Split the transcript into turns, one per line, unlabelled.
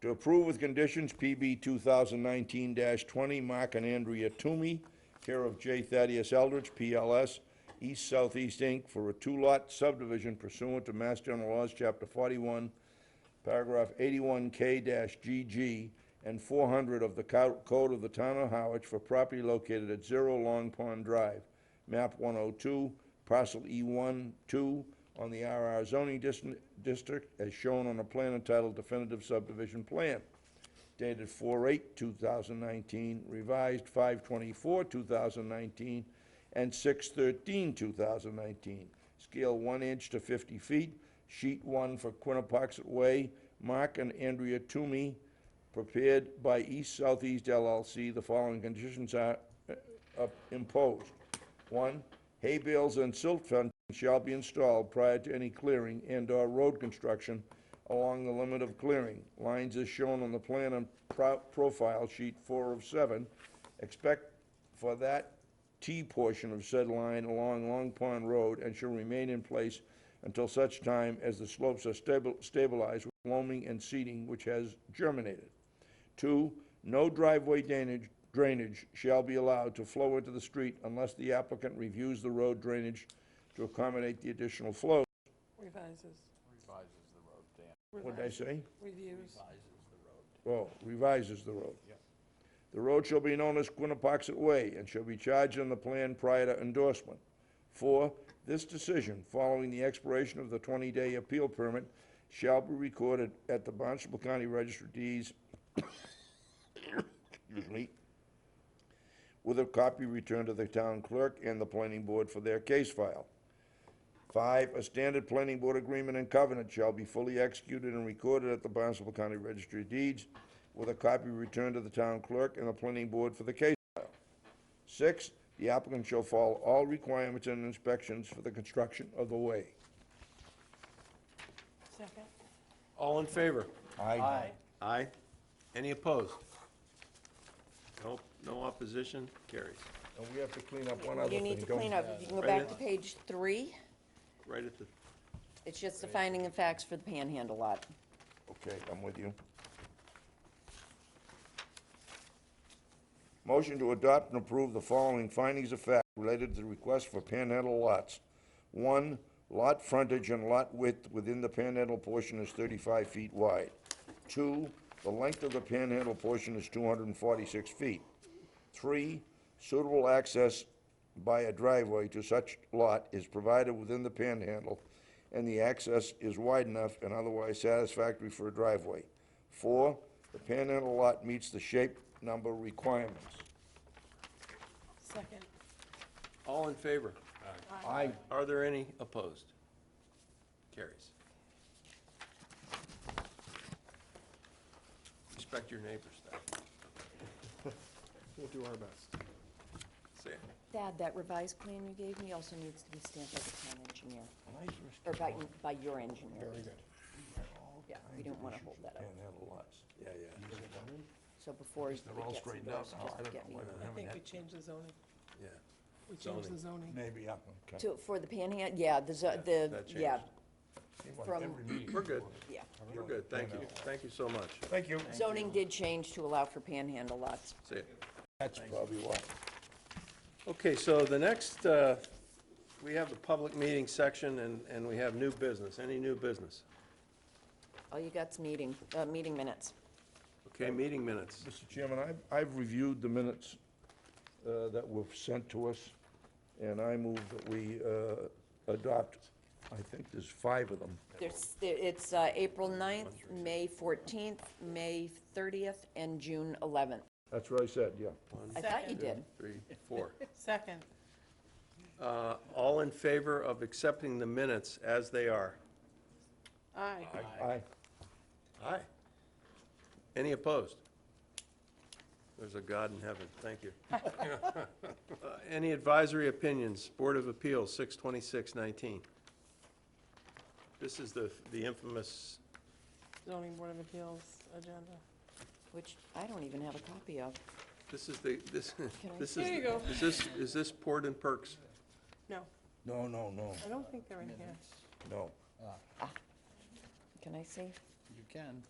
to approve with conditions PB 2019-20, Mark and Andrea Toomey, care of J. Thaddeus Eldridge, PLS, East Southeast Inc., for a two-lot subdivision pursuant to Mass General Laws, Chapter 41, paragraph 81K-GG, and 400 of the co- Code of the Town of Howard for property located at 0 Long Pond Drive, map 102, parcel E1-2, on the RR zoning dis- district, as shown on a plan entitled definitive subdivision plan, dated 4/8/2019, revised 5/24/2019, and 6/13/2019. Scale 1 inch to 50 feet, sheet 1 for Quinnapoxet Way, Mark and Andrea Toomey, prepared by East Southeast LLC. The following conditions are uh, uh, imposed. One, hay bales and silt fencing shall be installed prior to any clearing and/or road construction along the limit of clearing. Lines as shown on the plan and pro- profile sheet four of seven. Expect for that T portion of said line along Long Pond Road and shall remain in place until such time as the slopes are stabil- stabilized with loaming and seeding which has germinated. Two, no driveway drainage, drainage shall be allowed to flow into the street unless the applicant reviews the road drainage to accommodate the additional flow.
Revises,
What did I say?
reviews,
Oh, revises the road. The road shall be known as Quinnapoxet Way and shall be charged on the plan prior to endorsement. Four, this decision, following the expiration of the 20-day appeal permit, shall be recorded at the Barnstable County Register of Deeds, excuse me, with a copy returned to the town clerk and the planning board for their case file. Five, a standard planning board agreement and covenant shall be fully executed and recorded at the Barnstable County Registry of Deeds with a copy returned to the town clerk and the planning board for the case file. Six, the applicant shall follow all requirements and inspections for the construction of the way.
second,
All in favor?
Aye.
Aye. Any opposed? Nope, no opposition, carries.
And we have to clean up one other thing.
You need to
don't
clean
we?
up. If you can go
Right.
back to page three,
Right at the,
it's just the finding of facts for the panhandle lot.
Okay, I'm with you. Motion to adopt and approve the following findings of fact related to the request for panhandle lots. One, lot frontage and lot width within the panhandle portion is thirty-five feet wide. Two, the length of the panhandle portion is two hundred and forty-six feet. Three, suitable access by a driveway to such lot is provided within the panhandle, and the access is wide enough and otherwise satisfactory for a driveway. Four, the panhandle lot meets the shape number requirements.
second,
all in favor?
I,
Are there any opposed? Carries. Respect your neighbors, Doc.
We'll do our best.
Say it.
Dad, that revised plan you gave me also needs to be stamped by the town engineer, or by, by your engineer. Very good. Yeah, we didn't want to hold that up.
Panhandle lots, yeah, yeah,
So before we get
They're all
some
straightened out
doors,
now. I
just
don't
get
know
me.
whether
I think we change the zoning,
Yeah,
we change the zoning.
maybe up. okay.
To, for the panhandle, yeah, the, zo- the,
that
yeah,
changes.
from,
we're good,
yeah.
we're good, thank you, thank you so much.
Thank you.
Zoning did change to allow for panhandle lots.
Say it.
That's probably why.
Okay, so the next, uh, we have the public meeting section, and, and we have new business. Any new business?
All you got's meeting, uh, meeting minutes.
Okay, meeting minutes.
Mr. Chairman, I've, I've reviewed the minutes uh, that were sent to us, and I move that we uh, adopt, I think there's five of them.
There's, there- it's uh, April 9th, May 14th, May 30th, and June 11th.
That's what I said, yeah.
I thought you did.
Three, four.
Second,
Uh, All in favor of accepting the minutes as they are?
aye,
Aye.
Aye. Any opposed? There's a God in heaven, thank you. Uh, Any advisory opinions? Board of Appeals, 62619. This is the, the infamous,
zoning board of appeals agenda.
Which I don't even have a copy of.
this is the, this,
I-
this is.
There you go.
Is this, is this Port and Perks?
No,
No, no, no,
I don't think they're in here.
no.
Can I see?
You can.